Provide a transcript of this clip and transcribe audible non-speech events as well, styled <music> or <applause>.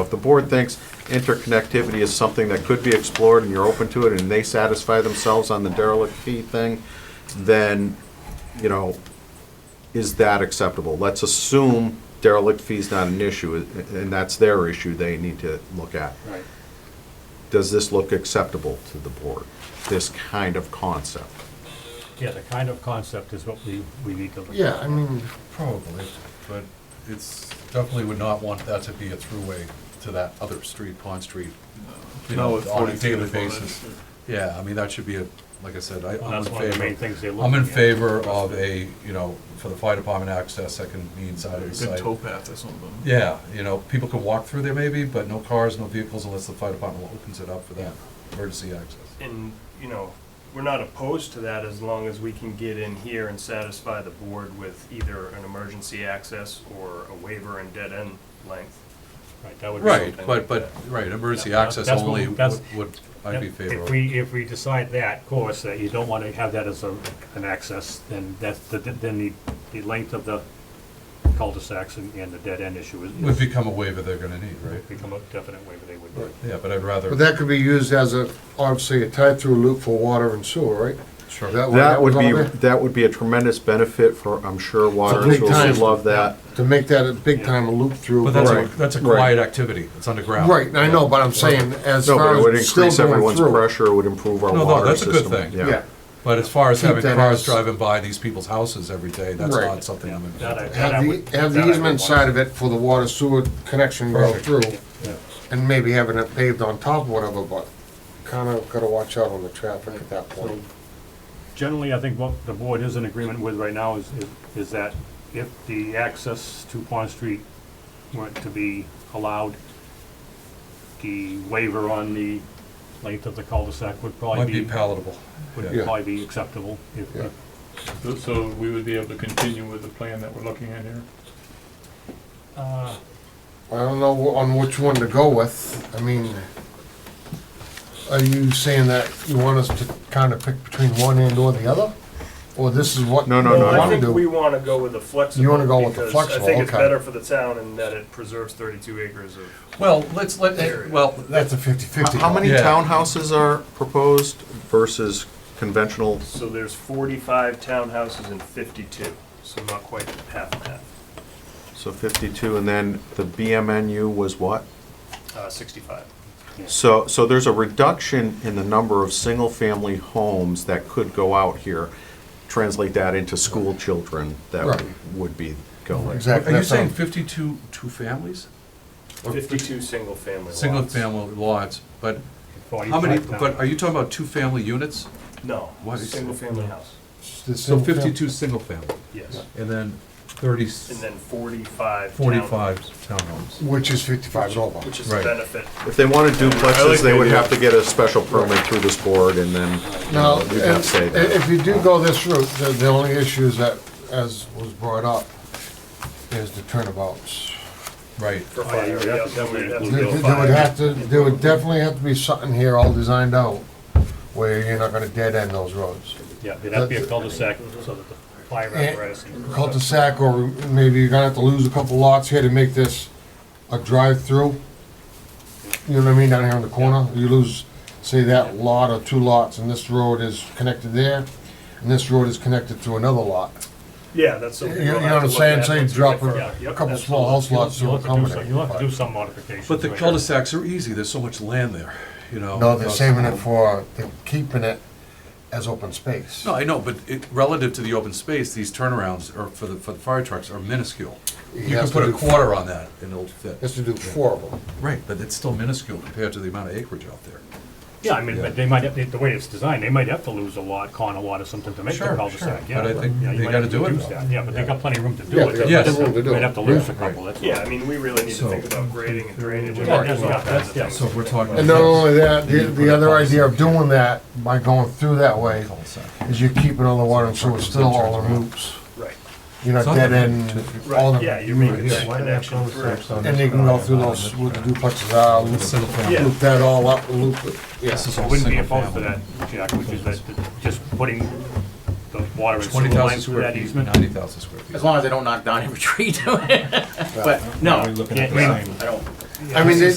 if the board thinks interconnectivity is something that could be explored and you're open to it and they satisfy themselves on the derelict fee thing, then, you know, is that acceptable? Let's assume derelict fee's not an issue, uh, and that's their issue they need to look at. Right. Does this look acceptable to the board, this kind of concept? Yeah, the kind of concept is what we, we need to look at. Yeah, I mean, Probably, but it's, definitely would not want that to be a throughway to that other street, Pond Street. You No, know, with on a 40 feet daily of frontage. basis. Yeah, I mean, that should be a, like I said, I- Well, I'm in That's one of the main favor. things they're I'm looking in at. favor of a, you know, for the fire department access, that can be inside of the Good site. tow path or something. Yeah, you know, people can walk through there maybe, but no cars, no vehicles unless the fire department opens it up for that emergency access. And, you know, we're not opposed to that as long as we can get in here and satisfy the board with either an emergency access or a waiver and dead end length. Right, that would be. Right, something but, like but, right, emergency Yeah, that- access that's what- only that's- would, would- I'd be If favorable. we, if we decide that, of course, that you don't want to have that as a, an access, then that's, the then the, the length of the cul-de-sacs and, and the dead end issue is. Would become a waiver they're gonna need, right? Become a definite waiver they would do. Yeah, but I'd rather. but that could be used as a, obviously, a tie-through loop for water and sewer, right? Sure. That way, That would was be, all there. that would be a tremendous benefit for, I'm sure, water and big sewer time. would love that. To make that a big-time loop through. But that's a, Right, that's a right. quiet activity, it's underground. Right, I know, but I'm saying, as No, but it far would as still increase going everyone's through. pressure, it would improve our No, no, water that's a system. good thing. Yeah, But as far as Keep having that cars as- driving by these people's houses every day, that's Right. not something I'm in That I- favor that I have would- the, have that I the would want. easement side of it for the water sewer connection go Perfect. through, Yeah. and maybe having it paved on top or whatever, but kinda gotta watch out on the traffic at that point. Generally, I think what the board is in agreement with right now is, is- is that if the access to Pond Street were to be allowed, the waiver on the length of the cul-de-sac would of. probably Might be, be palatable. would yeah. probably be acceptable. if- Yeah. So- So we would be able to continue with the plan that we're looking at here? Uh, I don't know wh- on which one to go with. I mean, are you saying that you want us to kind of pick between one end or the other? Or this is what? No, no, we no, Well, no. I wanna think do? we want to go with a flexible. You wanna go with the because flexible, I think it's okay. better for the town in that it preserves thirty-two acres of. Well, let's, let, Area. well, That's that's, a fifty-fifty. How many Yeah. townhouses are proposed versus conventional? So there's forty-five townhouses and fifty-two, so not quite half and half, So 52, and then the BMNU was what? uh, sixty-five. So, so there's a reduction in the number of single-family homes that could go out here. Translate that into school children that Right. would be going. Exactly. are you that's saying how- fifty-two, two families? Fifty-two single-family lots. Single-family lots, but how 45 many, now. but are you talking about two-family units? No, What is- single-family house, The So single fam- fifty-two single-family, yes. and then thirty, And then forty-five. forty-five townhomes, townhomes. Which is fifty-five and over. Which is a Right. benefit. If they wanted I like duplexes, the they would idea. have to get a special permit through this board and then you Now, know, we'd have to if say that. if you do go this route, the, the only issues that, as was brought up, is the turnabouts. Right. For Oh, yeah, fire, you're yeah, absolutely then we'd right. have to go There there would fire. have to, there would definitely have to be something here all designed out, where you're not gonna dead end those roads. Yeah, it'd have to be a cul-de-sac so that the fire apparatus. and- Cul-de-sac, or maybe you're gonna have to lose a couple lots here to make this a drive-through. You know what I mean, down here on the corner, you lose, say that lot or two lots, and this road is connected there, and this road is connected to another lot. Yeah, that's You something. you know we'll what have to I'm look saying, at so you once we drop get further. a Yep, couple small absolutely. house lots to You'll have to do accommodate. some, you'll have to do but- some modifications. But the right? cul-de-sacs are easy, there's so much land there, you know. No, they're without- saving it for, they're keeping it as open space. No, I know, but it, relative to the open space, these turnarounds are, for the, for the fire trucks are minuscule. He You can has to put a do- quarter on that and it'll he Has fit. to do four of them. Right, but it's still minuscule compared to the amount of acreage out there. Yeah, I mean, but they might, have the way it's designed, they might have to lose a lot, con a lot or something to make the Sure, cul-de-sac, sure, yeah. but I think Yeah, you they might gotta have to do it, reduce though. that, Yeah, but they got plenty of room to do Yeah, it. they got Yes. They plenty of room to do Might it. have to lose a Yeah, right. couple, that's all. Yeah, I mean, we really need to So- think about grading and drainage and all Yeah, that's- yeah, kinds of that's- yeah. things. So we're talking. And not only that, the, the other idea of doing that by going through that way Cul-de-sac. is you're keeping all the water and sewer still all in loops. Right, You're not dead end, all right, the, yeah, you're and making that connection through. they can go through those, with the duplexes out, loop- Single family. Yeah. loop that all up, loop it. This is I all wouldn't be single opposed to family. that, Jack, which is that, that just putting the water and sewer Twenty thousand lines through square that feet, easement. ninety thousand square feet. As long as they don't knock down every tree to it. <laughs> But, no, Yeah, I mean, I don't, I mean, they-